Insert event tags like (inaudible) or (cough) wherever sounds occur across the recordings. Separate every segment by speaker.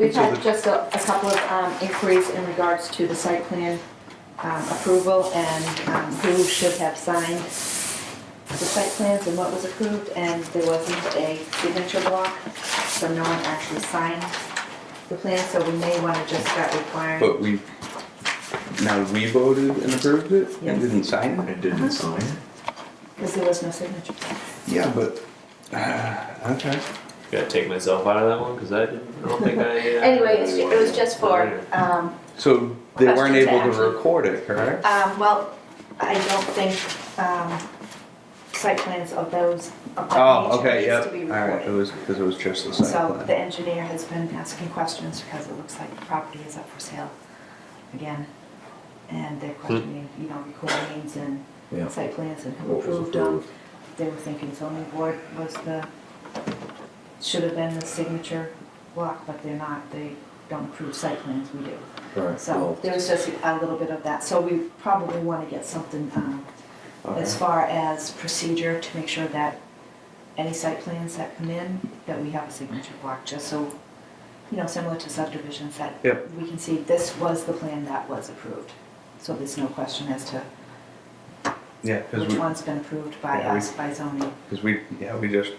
Speaker 1: We've had just a a couple of um, inquiries in regards to the site plan um, approval and um, who should have signed the site plans and what was approved, and there wasn't a signature block, so no one actually signed the plan, so we may want to just start requiring.
Speaker 2: But we, now we voted and approved it
Speaker 1: Yes.
Speaker 2: and didn't sign it?
Speaker 3: It didn't sign.
Speaker 1: Because there was no signature. block.
Speaker 2: Yeah, but, uh, okay.
Speaker 3: Gotta take myself out of that one, cause I didn't, I don't think I. uh,
Speaker 1: (laughs) Anyway, it's ju- it was just for, um,
Speaker 2: So they weren't
Speaker 1: Questions
Speaker 2: able to
Speaker 1: asked.
Speaker 2: record it, correct?
Speaker 1: um, well, I don't think um, site plans of those of that
Speaker 2: Oh, okay,
Speaker 1: nature
Speaker 2: yeah,
Speaker 1: needs to be
Speaker 2: all right, it
Speaker 1: recorded.
Speaker 2: was, because it was just the
Speaker 1: So
Speaker 2: site
Speaker 1: the
Speaker 2: plan.
Speaker 1: engineer has been asking questions because it looks like the property is up for sale again. And they're questioning, you know, recordings and
Speaker 4: Hmm. Yeah.
Speaker 1: site plans and who
Speaker 4: What was
Speaker 1: approved them.
Speaker 4: approved?
Speaker 1: They were thinking zoning board was the, should have been the signature block, but they're not. They don't approve site plans, we do.
Speaker 4: Right,
Speaker 1: um, So
Speaker 4: well,
Speaker 1: there was just a little bit of that. So we probably want to get something um, as far as procedure to make sure that any site plans that come in, that we have a signature block, just so, you know, similar to subdivisions that
Speaker 2: Yep.
Speaker 1: we can see this was the plan that was approved. So there's no question as to
Speaker 2: Yeah, because
Speaker 1: which
Speaker 2: we,
Speaker 1: one's been approved by
Speaker 2: Yeah, we-
Speaker 1: us, by zoning,
Speaker 2: because we, yeah, we just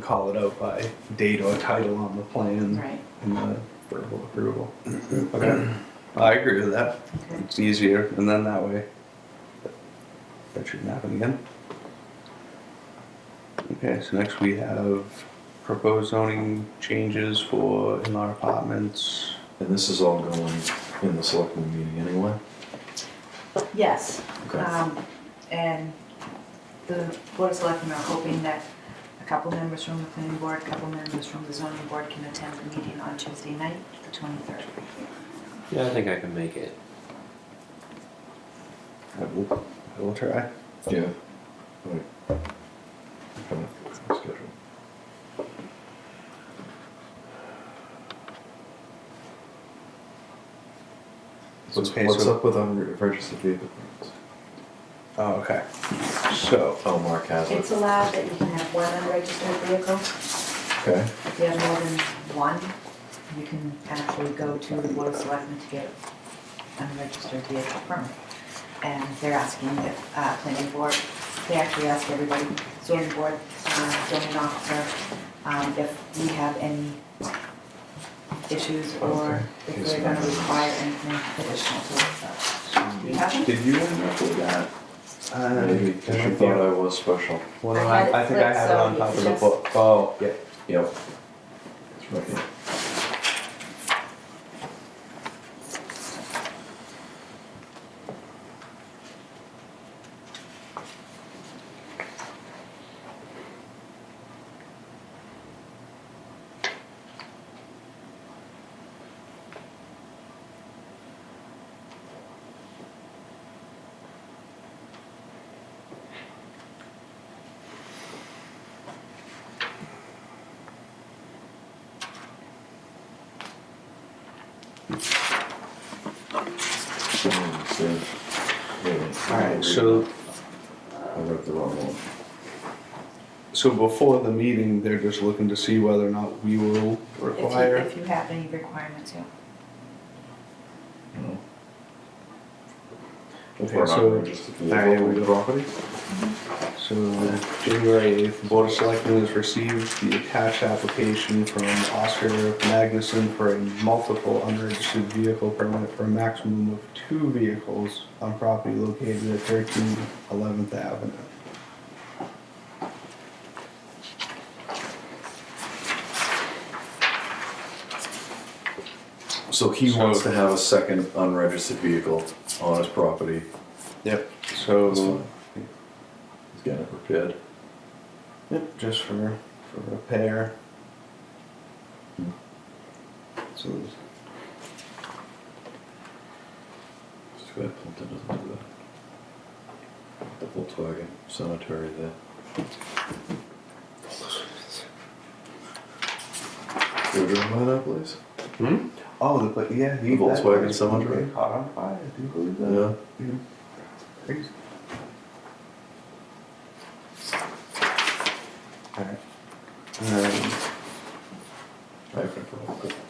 Speaker 2: call it out by date or title on the plan
Speaker 1: right?
Speaker 2: and the verbal approval. Okay, I agree with that.
Speaker 1: Okay.
Speaker 2: It's easier, and then that way, that shouldn't happen again. Okay, so next we have proposed zoning changes for in-law apartments.
Speaker 4: and this is all going in the selectmen meeting anyway?
Speaker 1: Yes.
Speaker 4: Okay.
Speaker 1: Um, And the Board of Selectmen are hoping that a couple members from the planning board, a couple members from the zoning board can attend the meeting on Tuesday night, the 23rd.
Speaker 3: Yeah, I think I can make it.
Speaker 2: I will, I will try.
Speaker 4: Yeah. Right. Haven't scheduled. So
Speaker 2: Okay,
Speaker 4: What's
Speaker 2: so-
Speaker 4: up with unregistered vehicle permits?
Speaker 2: Oh, okay. So,
Speaker 4: Oh, Mark has
Speaker 1: It's
Speaker 4: it,
Speaker 1: allowed that you can have one unregistered vehicle.
Speaker 4: okay.
Speaker 1: If you have more than one, you can actually go to the Board of Selectmen to get unregistered vehicle permit. And they're asking if, uh, planning board, they actually ask everybody, zoning board, uh, zoning officer, um, if we have any issues or
Speaker 4: Okay.
Speaker 1: if they're gonna require anything additional to us. Do you have it?
Speaker 2: did you end up with that? Uh,
Speaker 4: Maybe, 'cause you thought I was special.
Speaker 2: Well,
Speaker 1: I
Speaker 2: I,
Speaker 1: had it
Speaker 2: I think I
Speaker 1: flipped,
Speaker 2: had it
Speaker 1: so
Speaker 2: on
Speaker 1: you
Speaker 2: top of the
Speaker 1: just-
Speaker 2: book. Oh, yeah.
Speaker 4: Yep. It's right here. Mm, so- wait a minute.
Speaker 2: All right, so,
Speaker 4: I wrote the wrong one.
Speaker 2: so before the meeting, they're just looking to see whether or not we will
Speaker 1: If you,
Speaker 2: require.
Speaker 1: if you have any requirements, yeah.
Speaker 4: No.
Speaker 2: Okay,
Speaker 4: Or not
Speaker 2: so-
Speaker 4: registered
Speaker 2: All right,
Speaker 4: vehicle.
Speaker 2: we go. So, January 8th, the Board of Selectmen has received the attached application from Oscar Magnuson for a multiple unregistered vehicle permit for a maximum of two vehicles on property located at 13 11th Avenue.
Speaker 4: So he wants to have a second unregistered vehicle on his property.
Speaker 2: Yep.
Speaker 4: That's
Speaker 2: So,
Speaker 4: fine. He's getting it repaired.
Speaker 2: Yep, just for, for repair.
Speaker 4: Hmm.
Speaker 2: So, there's-
Speaker 4: Just glad Plimpton doesn't do that. The Volkswagen Cemetery there. You driven by that place?
Speaker 3: Hmm?
Speaker 2: oh, the, but yeah, the
Speaker 4: Volkswagen Cemetery?
Speaker 2: Caught on fire, I do believe that.
Speaker 4: Yeah.
Speaker 2: Mhm. Crazy. Alright. Um,
Speaker 4: I have no problem with